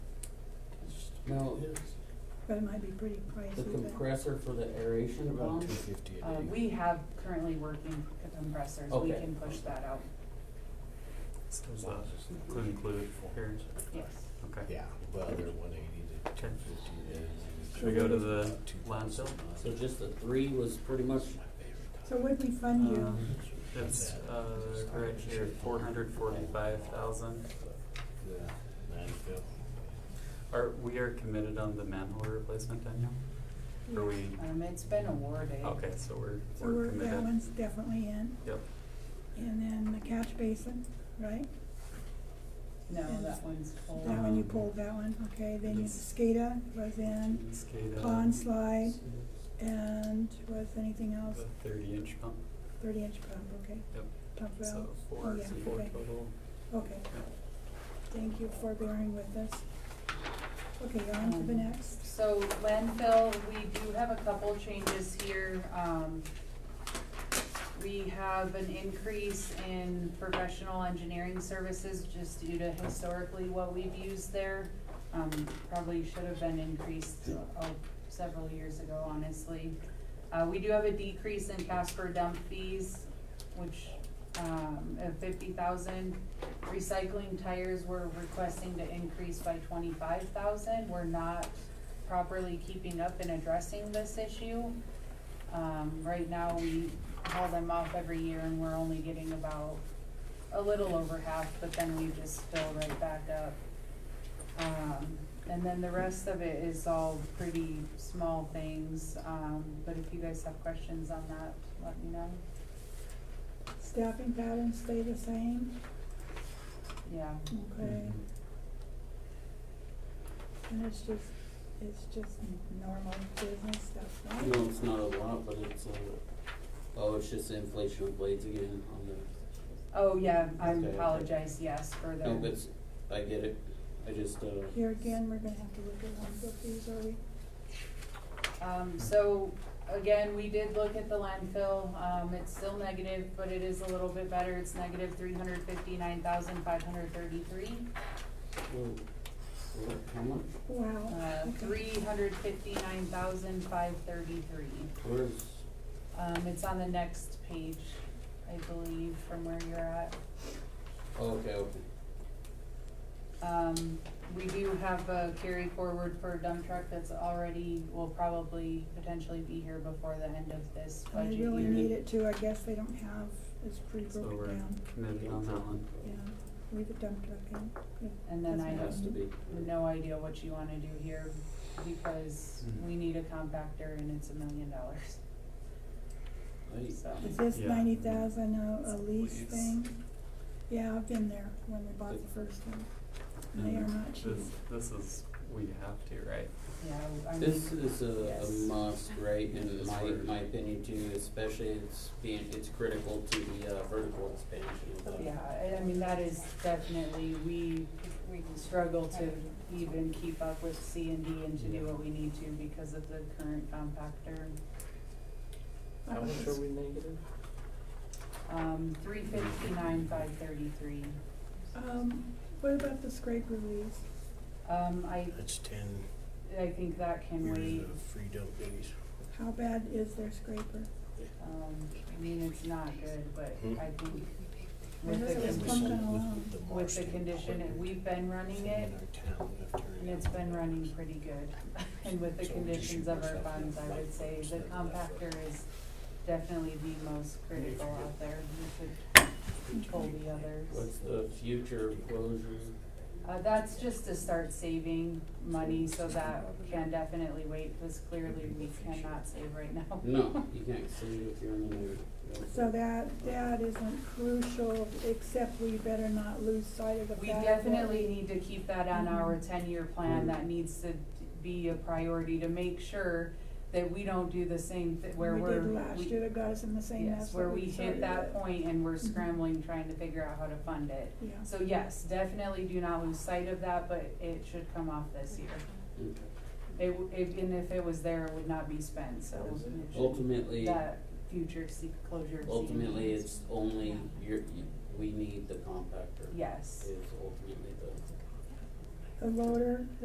No, but it might be pretty pricey. the but- compressor for the aeration About pump, two fifty a Uh, day. we have currently working compressors, we Okay. can push that out, Is that include, include periods? yes. Okay. Yeah, well, they're one eighty to two Okay. fifty a day. Should we go to the Two landfill? thousand miles. so just the three was pretty much, My favorite So would we fund you? Um, It's, uh, right here, four hundred forty-five thousand. time. The landfill. Are, we are committed on the manhole replacement, Daniel? Are we, Um, it's been awarded. okay, so we're, So we're we're, committed. that one's definitely in, Yep, and then the catch basin, right? No, that one's full. That one you Um, pulled that one, okay, then you, it's- SCADA was in, SCADA. pond slide, and was anything else? The thirty inch pump, Thirty inch pump, okay, yep, pump so valve, oh four, yeah, so four okay, total. okay, Yep. thank you for bearing with us. Okay, on to the Um, next, So landfill, we do have a couple changes here. Um, we have an increase in professional engineering services just due to historically what we've used there. Um, probably should have been increased, oh, several years ago, honestly. Uh, we do have a decrease in Casper dump fees, which, um, of fifty thousand. Recycling tires, we're requesting to increase by twenty-five thousand. We're not properly keeping up and addressing this issue. Um, right now, we haul them off every year and we're only getting about a little over half, but then we just fill right back up. Um, and then the rest of it is all pretty small things, um, but if you guys have questions on that, let me know. staffing patterns stay the same, Yeah, okay, and it's just, it's just normal business stuff, right? no, it's not a lot, but it's a, oh, it's just the inflation of blades again on the, oh yeah, I Okay, okay. apologize, yes, for the. no, but it's- I get it, I just, uh, Here again, we're gonna have to look at one of these, are we? Um, so, again, we did look at the landfill, um, it's still negative, but it is a little bit better, it's negative three hundred fifty-nine thousand five hundred thirty-three. well, well, how much, Wow. Uh, okay. three hundred fifty-nine thousand five thirty-three. where's, Um, it's on the next page, I believe, from where you're at. oh, okay, okay. Um, we do have a carry forward for a dump truck that's already, will probably potentially be here before the end of this I budget year. really need it too, I guess they don't have, it's pretty So broken we're down, committed on that one. yeah, leave the dump truck in. yeah, And then that's I It fine. Has to be, no idea what you wanna do here because we need a compactor and it's a million dollars, Hey, so. Is this Yeah. ninety thousand a, a lease Lease. thing? Yeah, I've been there when we bought the first one, and they are not cheap. This, this is, we have to, right? Yeah, I mean, This is a, a Yes. must, right, in It's my, where- my opinion too, especially it's being, it's critical to the, uh, vertical expansion of the. yeah, I, I mean, that is definitely, we, we struggle to even keep up with C and D and to do what we need to because of the current compactor. Uh, How much are we negative? Um, three fifty-nine, five thirty-three. Um, what about the scrape release? Um, I, That's ten I think that can years wait, of free dump days. How bad is their scraper? um, I mean, it's not good, but Hmm. I think I with heard the, it was con- pumping With- with along. the with the Marston condition, and equipment we've been running thing it, in our town after And it's been running pretty good. And with the So we conditions should of our work funds, I something would say the like that. compactor is definitely the most critical out there. We should pull the others. What's the future closure? Uh, that's just to start saving money, so that can definitely wait, because clearly we cannot save right now. No, you can't see if you're in the nude. So that, that isn't crucial, except we better not lose sight of the fact We that definitely need to keep that on our Mhm. ten-year plan, Mhm. that needs to be a priority to make sure that we don't do the same, thi- where we we're. did last we- year that got us in the same mess Yes, that where we started hit that with. point and we're Mhm. scrambling, trying to figure out how to fund it. Yeah, So yes, definitely do not lose sight of that, but it should come off this year. Okay. It, w- if- and if it was there, it would not be spent, so. it should- Ultimately, That future se- closure. of C&D. ultimately, it's only, Yeah. you're, you, we need the compactor. Yes. Is ultimately the. the loader,